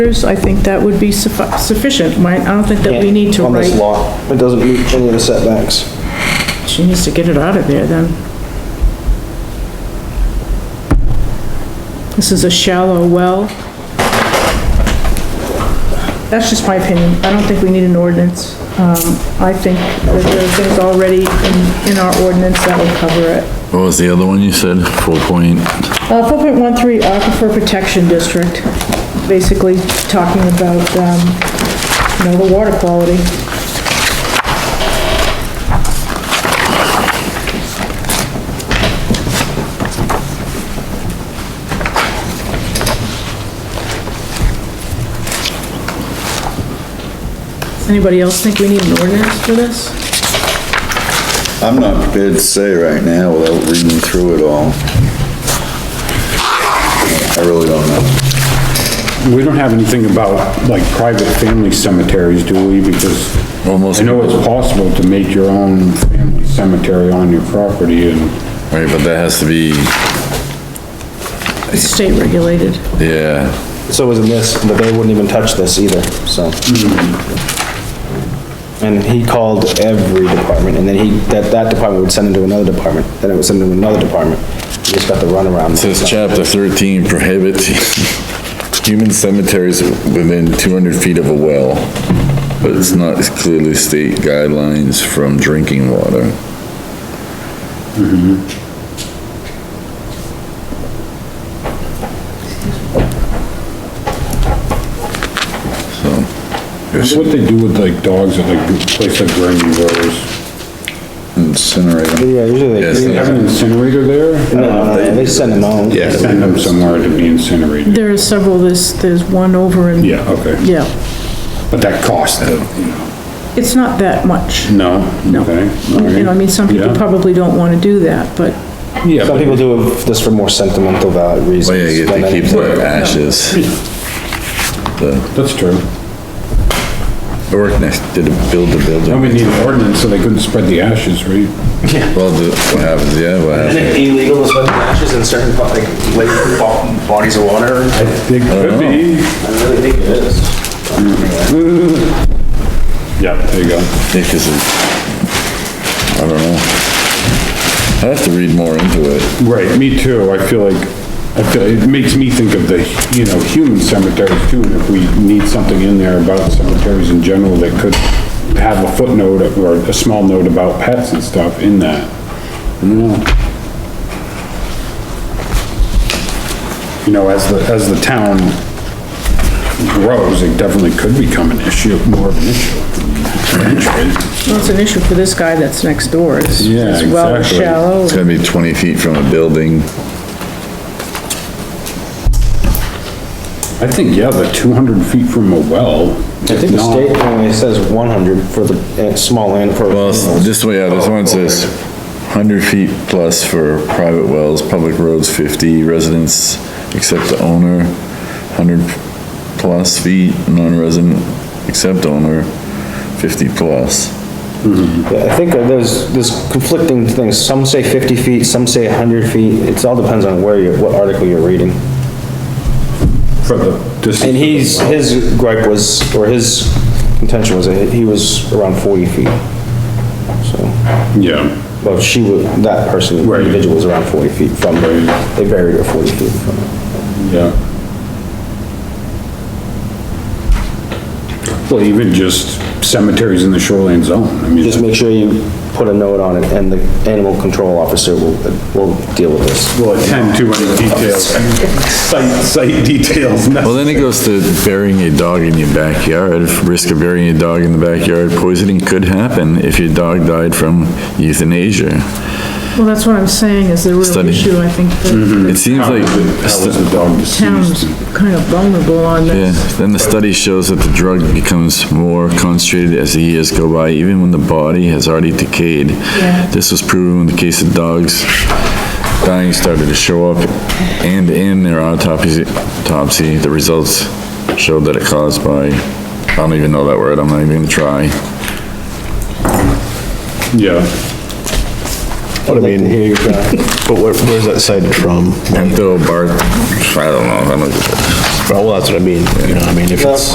years, I think that would be suffi- sufficient, right? I don't think that we need to on this write, lot. It doesn't meet any of the setbacks. she needs to get it out of there then. This is a shallow well. That's just my opinion. I don't think we need an ordinance. Um, I think that there are things already in, in our ordinance that will cover it. What was the other one you said? Four point, Uh, 4.13 Aquifer Protection District, basically talking about, um, you know, the water quality. Anybody else think we need an ordinance for this? I'm not prepared to say right now without reading through it all. I really don't know. We don't have anything about, like, private family cemeteries, do we? Because Well, most- I know it's possible to make your own family cemetery on your property and, right, but that has to be, It's state regulated. yeah, So was in this, but they wouldn't even touch this either, so. Hmm. And he called every department, and then he, that, that department would send it to another department, then it would send it to another department. You just got the runaround. says chapter thirteen prohibits human cemeteries within two hundred feet of a well, but it's not clearly state guidelines from drinking water. It's what they do with, like, dogs at, like, a place like Granby Rose. Incinerator. Yeah, usually Yes, They they, yeah. have an incinerator there? no, no, they send them out. Yeah. Send them somewhere to be incinerated. There are several, there's, there's one over in. Yeah, okay. Yeah. But that costs them, you know. It's not that much. No? No. Okay. all right. You know, I mean, some people Yeah. probably don't want to do that, but Yeah, Some but- people do it just for more sentimental valid Oh, reasons. yeah, you but have to then- keep the ashes. The, that's true. I worked next, did a build the Then we building. need an ordinance so they couldn't spread the ashes, right? Well, the- what happens, yeah, what Isn't happens? it illegal to send ashes in certain, like, lake bo- bodies of water? I They could be. really think it is. Yeah, there you go. Yeah, 'cause it, I don't know. I have to read more into it. Right, me too. I feel like, I feel, it makes me think of the, you know, human cemeteries too. And if we need something in there about cemeteries in general that could have a footnote or a small note about pets and stuff in that. I don't know. You know, as the, as the town grows, it definitely could become an issue, more of an issue. Eventually. well, it's an issue for this guy that's next door. It's Yeah, it's well exactly. shallow. It's gonna be twenty feet from a building. I think, yeah, the two hundred feet from a well. I think the if not- state only says one hundred for the, uh, small and for. Well, it's Oh, this way, yeah, this one says hundred feet plus for private wells, public roads fifty, residents except the owner, hundred plus feet, non-resident except owner, fifty plus. Yeah, I think there's, there's conflicting things. Some say fifty feet, some say hundred feet. It all depends on where you, what article you're reading. For the distance. And he's, his gripe was, or his contention was that he was around forty feet. So, Yeah, well, she was, that person, Right. individual was around forty feet from, Right. they buried her forty feet from it. yeah. Well, even just cemeteries in the shoreline zone, I mean, Just make sure you put a note on it and the animal control officer will, will deal with this. we'll attend to any details, site, site details. Well, no. then it goes to burying a dog in your backyard, risk of burying a dog in the backyard, poisoning could happen if your dog died from euthanasia. Well, that's what I'm saying, is the real Study. issue, I think, Mm-hmm. the It seems How like. is it- how is the dog town's deceased? kind of vulnerable on Yeah, this. then the study shows that the drug becomes more concentrated as the years go by, even when the body has already decayed. This was proven in the case of dogs dying started to show up, and in their autopsy, autopsy, the results showed that it caused by, I don't even know that word, I'm not even gonna try. Yeah, But I mean, but where, where's that cited from? Enterobar, I don't know, I don't, well, that's what I mean, you know, I mean, if it's.